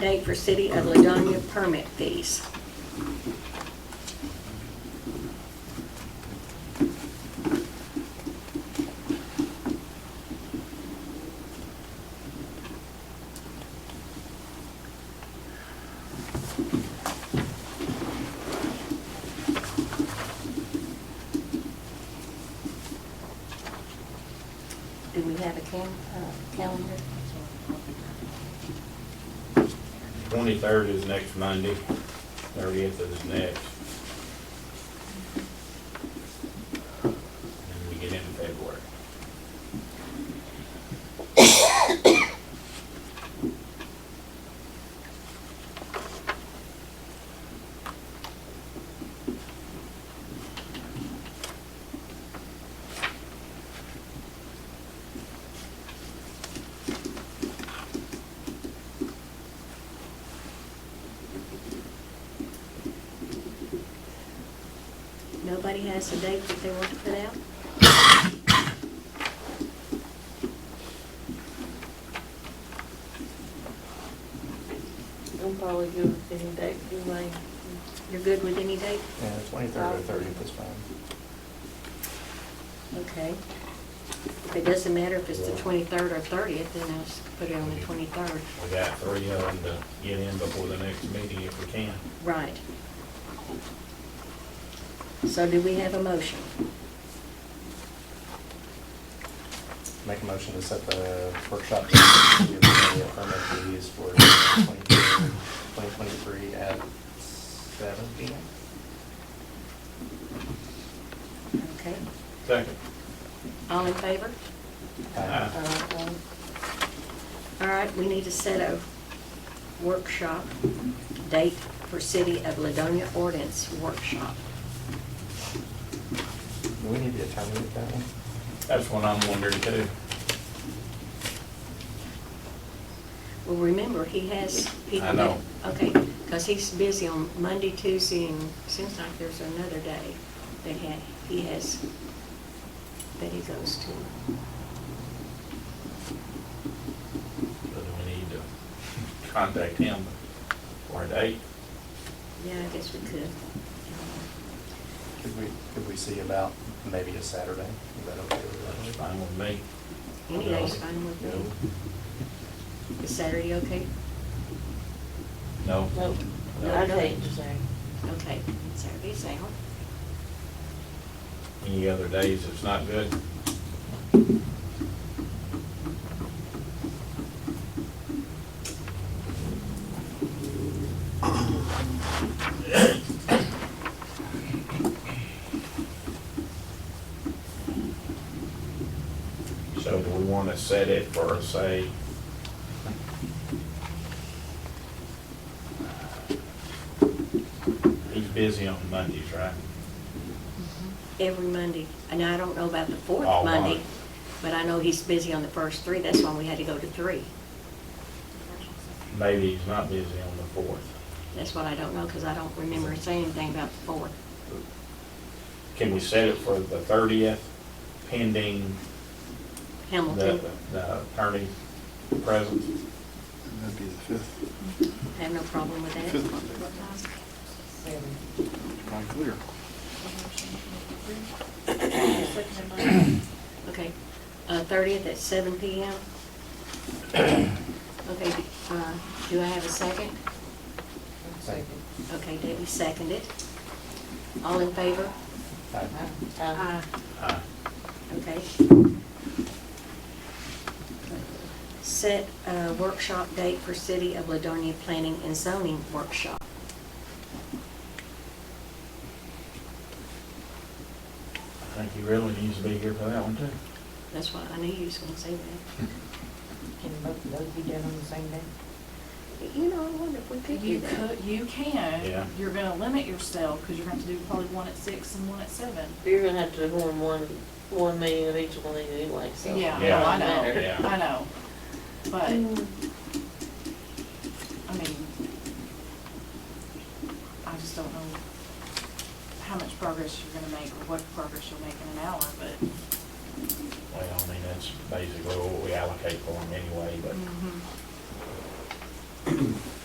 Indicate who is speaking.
Speaker 1: date for City of Ladonia permit fees. Do we have a can, uh, calendar?
Speaker 2: 23rd is next Monday, 30th is next. And we get into February.
Speaker 1: Nobody has a date that they want to put out?
Speaker 3: I'm probably good with any date you may.
Speaker 1: You're good with any date?
Speaker 4: Yeah, twenty-third or thirtieth is fine.
Speaker 1: Okay. If it doesn't matter if it's the 23rd or 30th, then I'll just put it on the 23rd.
Speaker 2: We got three of them to get in before the next meeting if we can.
Speaker 1: Right. So do we have a motion?
Speaker 4: Make a motion to set the workshop date for the renewal permit fees for 2023 at seven P M.
Speaker 1: Okay.
Speaker 2: Second.
Speaker 1: All in favor?
Speaker 2: Aye.
Speaker 1: Uh, uh, All right, we need to set a workshop date for City of Ladonia ordinance workshop.
Speaker 4: Do we need the attorney with that one?
Speaker 2: That's what I'm wondering too.
Speaker 1: Well, remember, he has. he-
Speaker 2: I know.
Speaker 1: Okay, because he's busy on Monday, Tuesday, and seems like there's another day that ha- he has, that he goes to.
Speaker 2: But we need to contact him for a date.
Speaker 1: Yeah, I guess we could.
Speaker 4: Could we, could we see about maybe a Saturday? Is that okay with
Speaker 2: That's
Speaker 4: you?
Speaker 2: fine with me.
Speaker 1: Any day's fine with me. Is Saturday okay?
Speaker 2: No?
Speaker 3: Nope,
Speaker 2: No.
Speaker 3: I can't say.
Speaker 1: Okay, Saturday's out.
Speaker 2: Any other days it's not good? So do we want to set it for, say, he's busy on Mondays, right?
Speaker 1: Mm-hmm. Every Monday. And I don't know about the fourth
Speaker 2: All month.
Speaker 1: Monday, but I know he's busy on the first three. That's why we had to go to three.
Speaker 2: Maybe he's not busy on the fourth.
Speaker 1: That's what I don't know, because I don't remember saying anything about the fourth.
Speaker 2: Can we set it for the thirtieth pending
Speaker 1: Hamilton,
Speaker 2: the, the attorney presence?
Speaker 5: That'd be the fifth,
Speaker 1: I have no problem with that.
Speaker 5: fifth Monday,
Speaker 3: Seven.
Speaker 5: right clear.
Speaker 1: Okay, Uh, thirtieth at seven PM. Okay, uh, do I have a second?
Speaker 3: Second.
Speaker 1: Okay, Debbie seconded. All in favor?
Speaker 4: Aye.
Speaker 3: Aye.
Speaker 2: Uh,
Speaker 1: Okay. Set a workshop date for City of Ladonia Planning and Zoning Workshop.
Speaker 2: I think he really needs to be here for that one too.
Speaker 1: That's what, I knew you was gonna say that.
Speaker 3: Can both of those be done on the same day?
Speaker 1: You know, I wonder if we could do
Speaker 6: You
Speaker 1: that.
Speaker 6: could, you can.
Speaker 2: Yeah.
Speaker 6: You're gonna limit yourself, because you're gonna have to do probably one at six and one at seven.
Speaker 3: You're gonna have to go on one, one meeting of each one anyway, so.
Speaker 6: Yeah,
Speaker 2: Yeah.
Speaker 6: no, I
Speaker 2: Yeah.
Speaker 6: know, I know. But, I mean, I just don't know how much progress you're gonna make, or what progress you'll make in an hour, but.
Speaker 2: Well, I mean, that's basically what we allocate for him anyway, but
Speaker 6: Mhm.